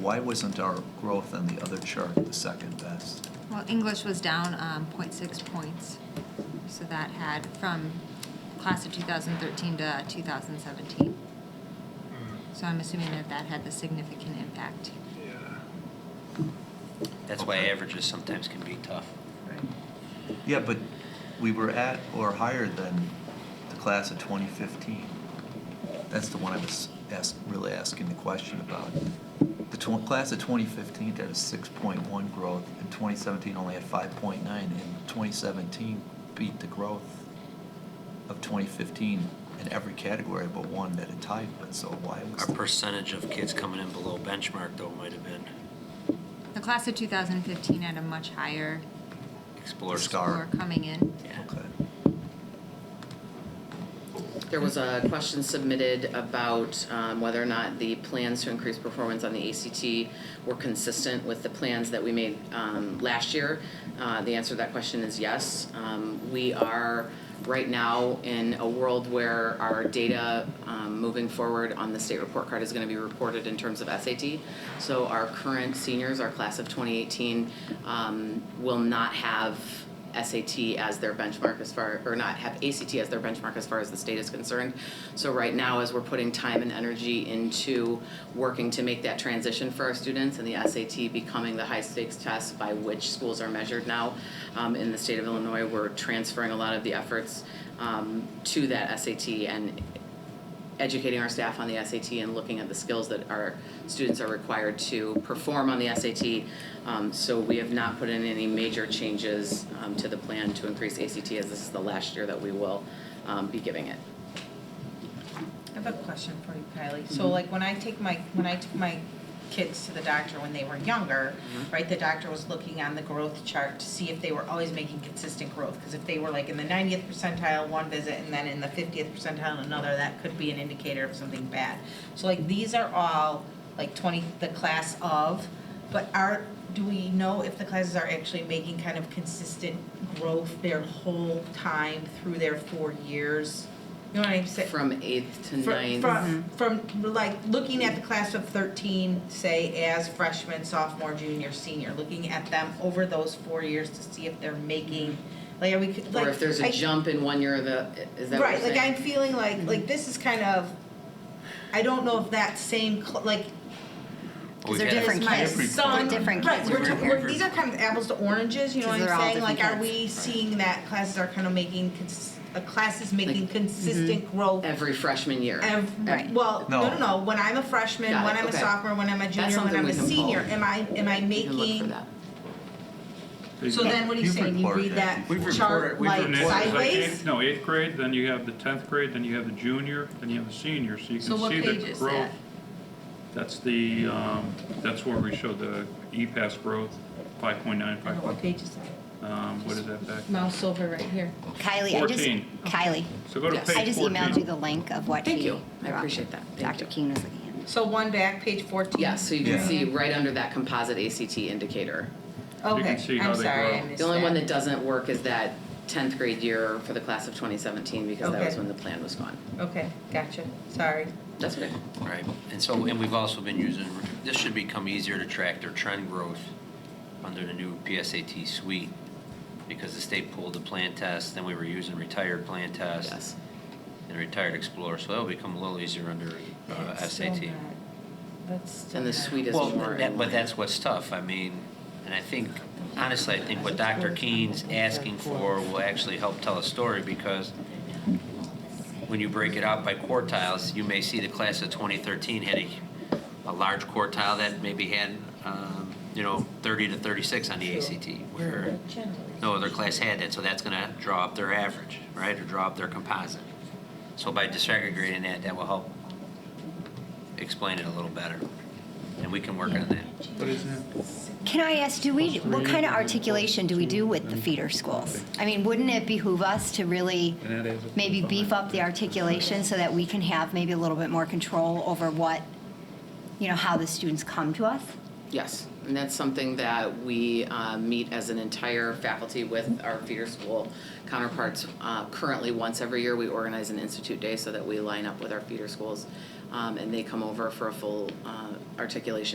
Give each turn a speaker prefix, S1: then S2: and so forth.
S1: why wasn't our growth on the other chart the second best?
S2: Well, English was down um, 0.6 points, so that had from class of 2013 to 2017. So I'm assuming that that had the significant impact.
S3: That's why
S1: Okay.
S3: averages sometimes can be tough.
S1: Yeah, but we were at or higher than the class of 2015. That's the one I was ask, really asking the question about. The tw- class of 2015 had a 6.1 growth, and 2017 only had 5.9, and 2017 beat the growth of 2015 in every category but one that it tied with, so why was?
S3: Our percentage of kids coming in below benchmark though might have been
S2: The class of 2015 had a much higher
S3: explored.
S1: Scar.
S2: score coming in.
S3: Yeah.
S1: Okay.
S4: There was a question submitted about um, whether or not the plans to increase performance on the ACT were consistent with the plans that we made um, last year. Uh, The answer to that question is yes. Um, We are right now in a world where our data um, moving forward on the state report card is going to be reported in terms of SAT. So our current seniors, our class of 2018, um, will not have SAT as their benchmark as far, or not have ACT as their benchmark as far as the state is concerned. So right now, as we're putting time and energy into working to make that transition for our students and the SAT becoming the high stakes test by which schools are measured now um, in the state of Illinois, we're transferring a lot of the efforts um, to that SAT and educating our staff on the SAT and looking at the skills that our students are required to perform on the SAT. Um, so we have not put in any major changes um, to the plan to increase ACT as this is the last year that we will um, be giving it.
S5: I have a question for you, Kylie. So like when I take my, when I took my kids to the doctor when they were younger, right, the doctor was looking on the growth chart to see if they were always making consistent growth. Because if they were like in the ninetieth percentile one visit and then in the fiftieth percentile another, that could be an indicator of something bad. So like these are all like twenty, the class of, but are, do we know if the classes are actually making kind of consistent growth their whole time through their four years? You know what I'm saying?
S4: From eighth to
S5: From,
S4: ninth. Mm-hmm.
S5: from, from like looking at the class of 13, say as freshman, sophomore, junior, senior, looking at them over those four years to see if they're making, like, are we, could- like.
S4: Or if there's
S5: I-
S4: a jump in one year of the, is that what you're
S5: Right, like I'm
S4: saying? Mm-hmm.
S5: feeling like, like this is kind of, I don't know if that same, cl- like,
S3: We've
S6: they're
S3: had a-
S5: is
S6: different
S5: my
S6: kids. They're
S5: son.
S6: different
S5: Right,
S6: kids
S5: we're,
S6: over
S5: talking-
S6: here.
S5: we're- these are kind of apples to oranges, you know what
S6: Because
S5: I'm
S6: they're all
S5: saying? Like, are
S6: different
S5: we seeing that classes are kind of making, cons- uh, classes making
S4: mm-hmm.
S5: consistent growth
S4: Every freshman year.
S5: Ev-
S6: Right.
S5: Well, no. no,
S1: No.
S5: no, When I'm a freshman,
S4: Got
S5: when
S4: it,
S5: I'm
S4: okay.
S5: a sophomore, when I'm a junior, when
S4: something
S5: I'm
S4: we
S5: a
S4: can pull.
S5: senior, am I am I
S4: You can look for
S5: making?
S4: that.
S5: So then, what are you
S1: You've
S5: saying? You
S1: reported
S5: read
S1: that
S5: that
S1: before.
S3: We've
S5: chart
S3: reported- we've
S5: like
S3: reported
S7: Next is like
S5: sideways.
S7: eighth- No, eighth grade, then you have the tenth grade, then you have the junior, then you have the senior, so you
S8: So
S7: can
S8: what
S7: see the growth.
S8: page is that?
S7: That's the, um, that's where we show the E-Pass growth, five point nine,
S5: I don't
S7: five
S5: know what
S7: point,
S5: page is that?
S7: um, what is that back?
S5: Mouse over right here.
S6: Kylie, I just,
S7: 14.
S6: Kylie,
S7: So go to
S4: Yes.
S7: page fourteen.
S6: I just emailed you the link of what he.
S4: Thank you. I
S6: you're welcome.
S4: appreciate that. Thank
S6: Dr.
S4: you.
S6: Keene was looking at.
S5: So one back, page fourteen.
S4: Yeah, so you can
S1: Yeah.
S4: see right under that composite ACT indicator.
S7: can
S5: Okay,
S7: see how
S5: I'm
S7: they
S5: sorry,
S7: grow.
S5: I missed
S4: The only one that doesn't work is that tenth grade year for the class of twenty seventeen, because that
S5: Okay.
S4: was when the plan was gone.
S5: Okay, gotcha. Sorry.
S4: That's okay.
S3: Right, and so, and we've also been using, this should become easier to track their trend growth under the new PSAT suite, because the state pulled the plan test, then we were using retired plan test
S4: Yes.
S3: and retired explorer, so that'll become a little easier under
S4: Oh,
S3: uh,
S5: That's still
S3: SAT.
S5: not- That's still
S4: And the
S5: not-
S4: suite is
S3: Well,
S4: more.
S3: that-
S4: in
S3: but
S4: line.
S3: that's what's tough, I mean, and I think, honestly, I think what Dr. Keene's asking for will actually help tell a story, because when you break it out by quartiles, you may see the class of 2013 had a, a large quartile that maybe had, um, you know, 30 to 36 on the ACT, where no other class had that, so that's gonna draw up their average, right, or draw up their composite. So by disaggregating that, that will help explain it a little better, and we can work on that.
S6: Can I ask, do we, what kind of articulation do we do with the feeder schools? I mean, wouldn't it behoove us to really maybe beef up the articulation so that we can have maybe a little bit more control over what, you know, how the students come to us?
S4: Yes, and that's something that we uh, meet as an entire faculty with our feeder school counterparts. Uh, Currently, once every year, we organize an institute day so that we line up with our feeder schools, um, and they come over for a full uh, articulation